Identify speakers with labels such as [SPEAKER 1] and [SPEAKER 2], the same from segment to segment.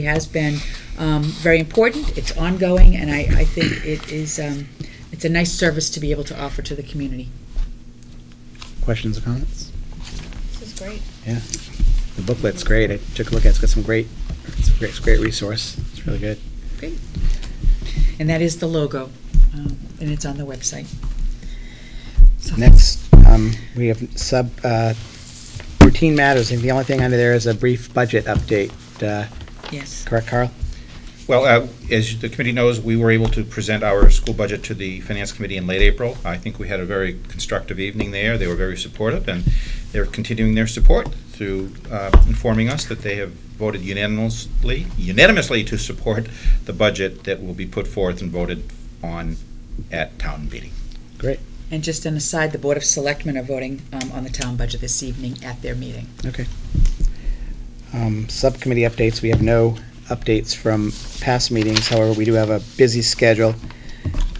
[SPEAKER 1] has been um, very important, it's ongoing, and I, I think it is, um, it's a nice service to be able to offer to the community.
[SPEAKER 2] Questions or comments?
[SPEAKER 3] This is great.
[SPEAKER 2] Yeah. The booklet's great. I took a look at it. It's got some great, it's a great, it's a great resource. It's really good.
[SPEAKER 1] Great. And that is the logo, um, and it's on the website. So-
[SPEAKER 2] Next, um, we have sub, uh, routine matters. And the only thing under there is a brief budget update. Uh,
[SPEAKER 1] Yes.
[SPEAKER 2] correct, Carl?
[SPEAKER 4] Well, uh, as the committee knows, we were able to present our school budget to the Finance Committee in late April. I think we had a very constructive evening there. They were very supportive, and they're continuing their support through uh, informing us that they have voted unanimously, unanimously to support the budget that will be put forth and voted on at town meeting.
[SPEAKER 2] Great.
[SPEAKER 1] And just an aside, the Board of Selectmen are voting um, on the town budget this evening at their meeting.
[SPEAKER 2] Okay. Um, Subcommittee updates, we have no updates from past meetings, however, we do have a busy schedule.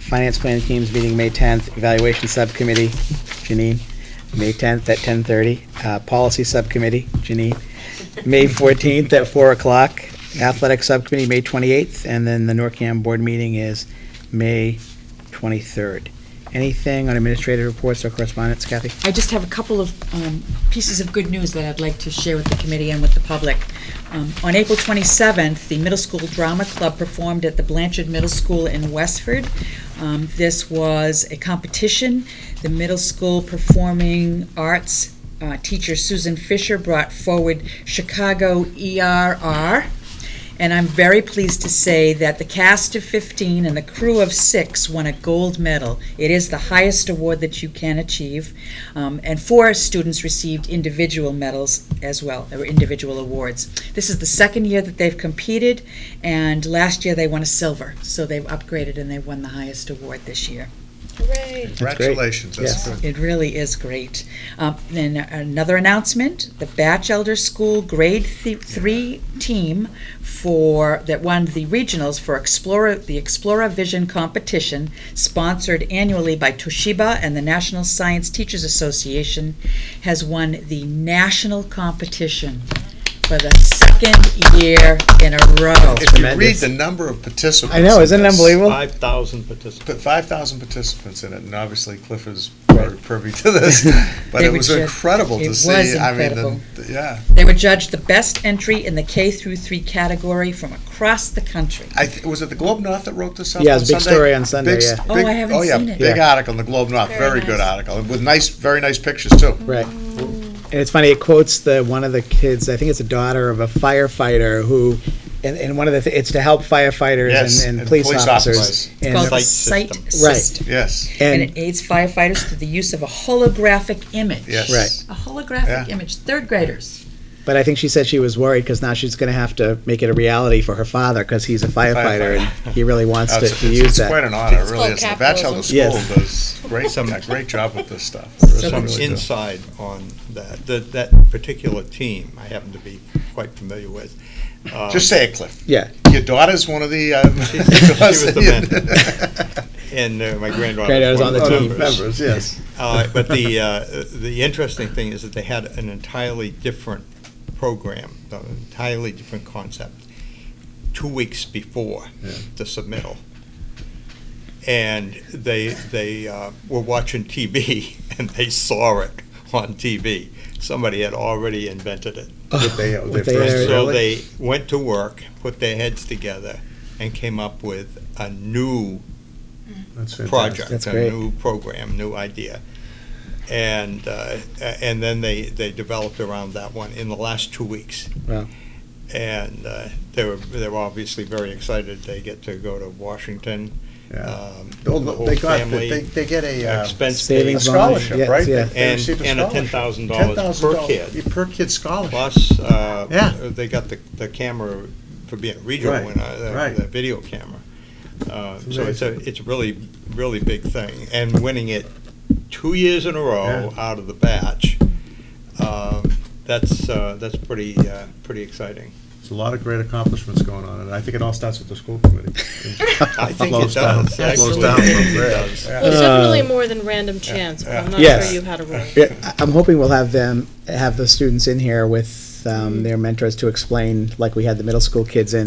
[SPEAKER 2] Finance Planning Team's meeting May 10th, Evaluation Subcommittee, Janine, May 10th at 10:30. Uh, Policy Subcommittee, Janine, May 14th at 4 o'clock. Athletic Subcommittee, May 28th, and then the NORCAM Board meeting is May 23rd. Anything on administrative reports or correspondence, Kathy?
[SPEAKER 1] I just have a couple of um, pieces of good news that I'd like to share with the committee and with the public. Um, On April 27th, the Middle School Drama Club performed at the Blanchard Middle School in Westford. Um, This was a competition. The middle school performing arts uh, teacher Susan Fisher brought forward Chicago ERR. And I'm very pleased to say that the cast of 15 and the crew of six won a gold medal. It is the highest award that you can achieve. Um, and four students received individual medals as well, or individual awards. This is the second year that they've competed, and last year they won a silver. So they've upgraded and they won the highest award this year.
[SPEAKER 3] Hooray.
[SPEAKER 2] That's great.
[SPEAKER 5] Congratulations, that's
[SPEAKER 2] Yes.
[SPEAKER 5] good.
[SPEAKER 1] It really is great. Um, Then another announcement, the Batch Elder School Grade Thi- Three team for, that won the regionals for Explorer, the Explorer Vision Competition, sponsored annually by Toshiba and the National Science Teachers Association, has won the national competition for the second year in a row.
[SPEAKER 5] If you read
[SPEAKER 2] Tremendous.
[SPEAKER 5] the number of participants.
[SPEAKER 2] I know,
[SPEAKER 5] in
[SPEAKER 2] isn't it
[SPEAKER 5] this,
[SPEAKER 2] unbelievable?
[SPEAKER 6] Five thousand participants.
[SPEAKER 5] Put 5,000 participants in it, and obviously Cliff is very privy to this, but
[SPEAKER 1] They
[SPEAKER 5] it
[SPEAKER 1] were
[SPEAKER 5] was
[SPEAKER 1] just-
[SPEAKER 5] incredible
[SPEAKER 1] it
[SPEAKER 5] to
[SPEAKER 1] was
[SPEAKER 5] see. I mean, the-
[SPEAKER 1] incredible.
[SPEAKER 5] the- Yeah,
[SPEAKER 1] They were judged the best entry in the K through three category from across the country.
[SPEAKER 5] I, th- was it the Globe North that wrote this up?
[SPEAKER 2] Yeah, it was a
[SPEAKER 5] on
[SPEAKER 2] big
[SPEAKER 5] Sunday?
[SPEAKER 2] story on Sunday,
[SPEAKER 5] Big s-
[SPEAKER 2] yeah.
[SPEAKER 1] Oh,
[SPEAKER 5] big-
[SPEAKER 1] I haven't
[SPEAKER 5] yeah,
[SPEAKER 1] seen it.
[SPEAKER 5] Big
[SPEAKER 2] Yeah.
[SPEAKER 5] article in the Globe North,
[SPEAKER 3] Very
[SPEAKER 5] very good
[SPEAKER 3] nice.
[SPEAKER 5] article, with nice, very nice pictures too.
[SPEAKER 2] Right. And it's funny, it quotes the, one of the kids, I think it's a daughter of a firefighter who, and, and one of the, thi- it's to help firefighters
[SPEAKER 5] Yes,
[SPEAKER 2] and, and police officers.
[SPEAKER 1] It's
[SPEAKER 2] And
[SPEAKER 1] called the
[SPEAKER 6] Sight
[SPEAKER 1] Sight
[SPEAKER 6] system.
[SPEAKER 2] Right.
[SPEAKER 1] System.
[SPEAKER 5] Yes,
[SPEAKER 1] and
[SPEAKER 2] And,
[SPEAKER 1] it aids firefighters through the use of a holographic image.
[SPEAKER 5] yes.
[SPEAKER 2] Right.
[SPEAKER 1] A holographic
[SPEAKER 5] Yeah.
[SPEAKER 1] image, third graders.
[SPEAKER 2] but I think she said she was worried because now she's gonna have to make it a reality for her father because he's a firefighter and he really wants
[SPEAKER 5] Oh,
[SPEAKER 2] to
[SPEAKER 5] It's
[SPEAKER 2] to
[SPEAKER 5] it's- it's
[SPEAKER 2] use
[SPEAKER 5] quite
[SPEAKER 2] that.
[SPEAKER 5] an honor, it
[SPEAKER 3] It's
[SPEAKER 5] really
[SPEAKER 3] called
[SPEAKER 5] is. The Bachelor
[SPEAKER 3] capitalism.
[SPEAKER 5] School
[SPEAKER 2] Yes.
[SPEAKER 5] does great,
[SPEAKER 6] Some-
[SPEAKER 5] a great job with this stuff.
[SPEAKER 6] Some
[SPEAKER 5] Really does.
[SPEAKER 6] inside on that, that, that particular team, I happen to be quite familiar with. Um,
[SPEAKER 5] Just say it, Cliff.
[SPEAKER 2] Yeah.
[SPEAKER 5] Your daughter's one of the. Um,
[SPEAKER 6] She- she was the man. And uh, my granddaughter.
[SPEAKER 2] Granddaughter's
[SPEAKER 6] was
[SPEAKER 2] on
[SPEAKER 6] one
[SPEAKER 2] the
[SPEAKER 6] of
[SPEAKER 2] team.
[SPEAKER 6] members.
[SPEAKER 5] Members, yes.
[SPEAKER 6] Uh, But the, uh, the interesting thing is that they had an entirely different program, an entirely different concept, two weeks before the submittal. And they, they uh, were watching TV, and they saw it on TV. Somebody had already invented it.
[SPEAKER 5] What they- what they
[SPEAKER 2] What they
[SPEAKER 5] first
[SPEAKER 2] are-
[SPEAKER 5] did.
[SPEAKER 6] So
[SPEAKER 5] Really?
[SPEAKER 6] they went to work, put their heads together, and came up with a new
[SPEAKER 5] That's fantastic.
[SPEAKER 6] project,
[SPEAKER 2] That's
[SPEAKER 6] a
[SPEAKER 2] great.
[SPEAKER 6] new program, new idea. And, uh, a- and then they, they developed around that one in the last two weeks.
[SPEAKER 2] Wow.
[SPEAKER 6] And uh, they were, they were obviously very excited. They get to go to Washington.
[SPEAKER 5] Yeah.
[SPEAKER 6] um,
[SPEAKER 5] Well,
[SPEAKER 6] the whole
[SPEAKER 5] They got,
[SPEAKER 6] family,
[SPEAKER 5] they, they get a, uh,
[SPEAKER 6] Expense
[SPEAKER 5] a
[SPEAKER 2] Savings
[SPEAKER 6] savings
[SPEAKER 2] bond,
[SPEAKER 5] scholarship,
[SPEAKER 2] yes,
[SPEAKER 5] right? They-
[SPEAKER 2] yeah.
[SPEAKER 5] they
[SPEAKER 6] And-
[SPEAKER 5] received
[SPEAKER 6] and a
[SPEAKER 5] scholarship.
[SPEAKER 6] $10,000
[SPEAKER 5] $10,000
[SPEAKER 6] per kid.
[SPEAKER 5] Per kid scholarship.
[SPEAKER 6] plus, uh,
[SPEAKER 5] Yeah.
[SPEAKER 6] they got the, the camera for being a regional
[SPEAKER 5] Right,
[SPEAKER 6] winner, the-
[SPEAKER 5] right.
[SPEAKER 6] uh, the video camera. Uh, So it's a, it's a really, really big thing. And winning it two years in a row out of the batch, um, that's, uh, that's pretty, uh, pretty exciting.
[SPEAKER 5] There's a lot of great accomplishments going on, and I think it all starts with the school committee.
[SPEAKER 6] I think it
[SPEAKER 5] Blows down-
[SPEAKER 6] does.
[SPEAKER 5] Blows
[SPEAKER 6] actually.
[SPEAKER 5] down
[SPEAKER 6] I
[SPEAKER 5] from
[SPEAKER 6] think it
[SPEAKER 5] there.
[SPEAKER 6] does.
[SPEAKER 3] Well, it's definitely more than random chance, but I'm not
[SPEAKER 2] Yes.
[SPEAKER 3] sure you had a role.
[SPEAKER 2] Yeah, I- I'm hoping we'll have them, have the students in here with um, their mentors to explain, like we had the middle school kids in,